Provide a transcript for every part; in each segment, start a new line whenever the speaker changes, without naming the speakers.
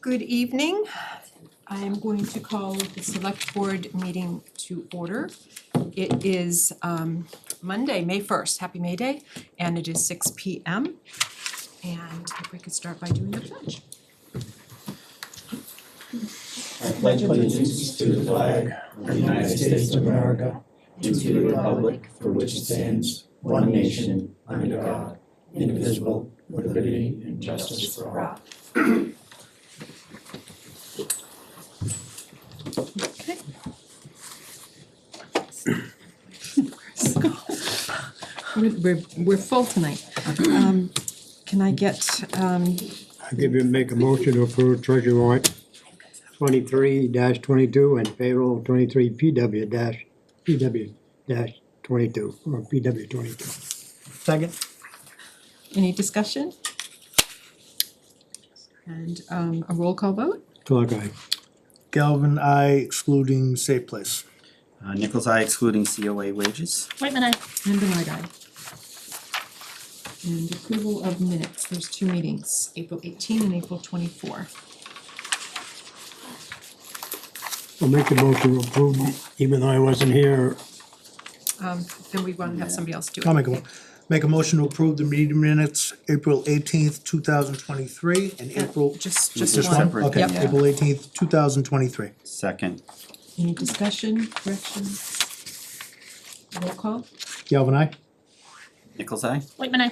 Good evening. I am going to call the select board meeting to order. It is um Monday, May first, happy May Day, and it is six P M. And if we could start by doing the pledge.
I pledge allegiance to the flag of the United States of America and to the republic for which it stands, one nation, under God, indivisible, with liberty and justice for all.
Okay. We're we're we're full tonight. Um can I get um
I give you, make a motion to approve treasury warrant twenty-three twenty-two and payroll twenty-three PW dash, PW dash twenty-two, or PW twenty-two. Second?
any discussion? And um a roll call vote?
Clark, aye.
Galvin, I excluding Safe Place.
Uh, Nichols Eye excluding COA wages.
Whitman, I,
And Benoit eye. And approval of minutes, there's two meetings, April eighteen and April twenty-four.
I'll make a motion to approve, even though I wasn't here,
Um, then we wanna have somebody else do it.
I'll make a, make a motion to approve the meeting minutes, April eighteenth, two thousand twenty-three, and April.
Just,
Just
just
one.
one.
separate,
Okay,
yeah.
April eighteenth, two thousand twenty-three.
Second,
Any discussion, corrections? Roll call,
Galvin, I.
Nichols Eye.
Whitman, I,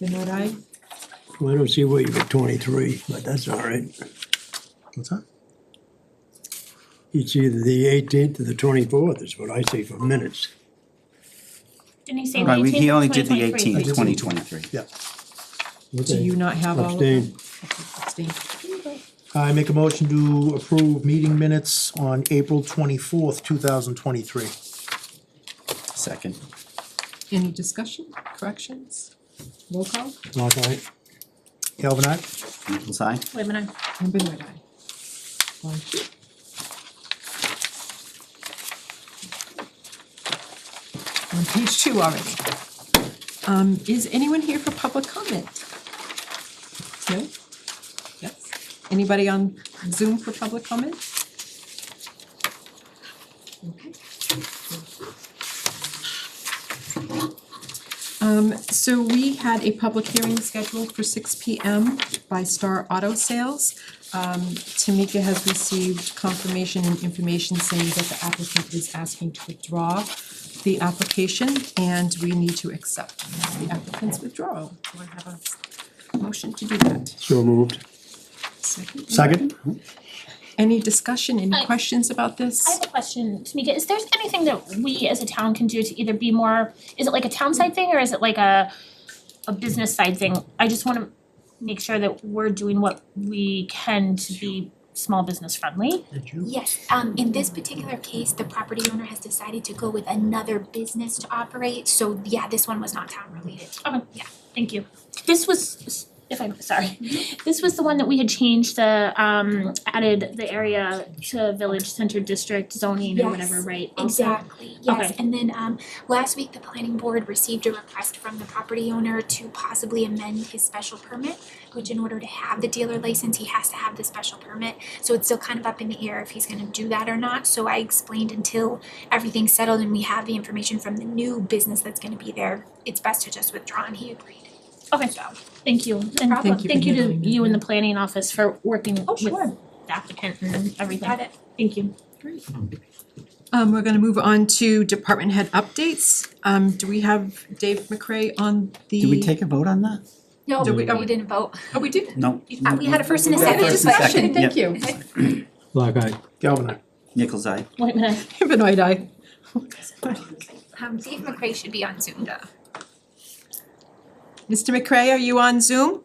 Benoit eye,
I don't see where you got twenty-three, but that's all right.
What's that?
It's either the eighteenth or the twenty-fourth is what I say for minutes.
didn't he say the
Right, we-
eighteenth,
he only did the
2023?
eighteenth, twenty twenty-three.
Yeah.
do you not have all of them?
Abstain.
Abstain.
I make a motion to approve meeting minutes on April twenty-fourth, two thousand twenty-three.
Second,
Any discussion, corrections? Roll call,
Clark, aye.
Galvin, I.
Nichols Eye.
Whitman, I,
and Benoit eye. Thank you. On page two already. Um, is anyone here for public comment? No? Yes? Anybody on Zoom for public comment? Okay. Um, so we had a public hearing scheduled for six P M by Star Auto Sales. Um, Tamika has received confirmation and information saying that the applicant is asking to withdraw the application and we need to accept the applicant's withdrawal. Do I have a motion to do that?
So moved.
Second.
Second?
Any discussion, any
I-
questions about this?
I have a question, Tamika, is there anything that we as a town can do to either be more, is it like a town side thing or is it like a, a business side thing? I just wanna make sure that we're doing what we can to be small business friendly.
Yes, um, in this particular case, the property owner has decided to go with another business to operate, so yeah, this one was not town related.
Okay,
Yeah.
Thank you. This was, if I'm, sorry, this was the one that we had changed the, um, added the area to village center district zoning or whatever,
Yes,
right? Also-
Exactly, yes,
Okay.
and then, um, last week, the planning board received a request from the property owner to possibly amend his special permit, which in order to have the dealer license, he has to have the special permit, so it's still kind of up in the air if he's gonna do that or not, so I explained until everything's settled and we have the information from the new business that's gonna be there, it's best to just withdraw, and he agreed.
Okay, thank you, and
problem.
Thank you
thank
for
you to
handling that,
you and the
yeah.
planning office for working
Oh,
with
sure.
the applicant and everything.
Got it.
Thank you.
Um, we're gonna move on to department head updates. Um, do we have Dave McCray on the?
Did we take a vote on that?
No,
Did
we,
we-
we didn't vote.
Oh, we did.
No.
Uh, We had a first and a
We got
second.
first and second,
Thank
yep.
you.
Clark, aye.
Galvin, I.
Nichols Eye.
Wait a minute,
Benoit eye.
Um, Dave McCray should be on Zoom.
Mr. McCray, are you on Zoom?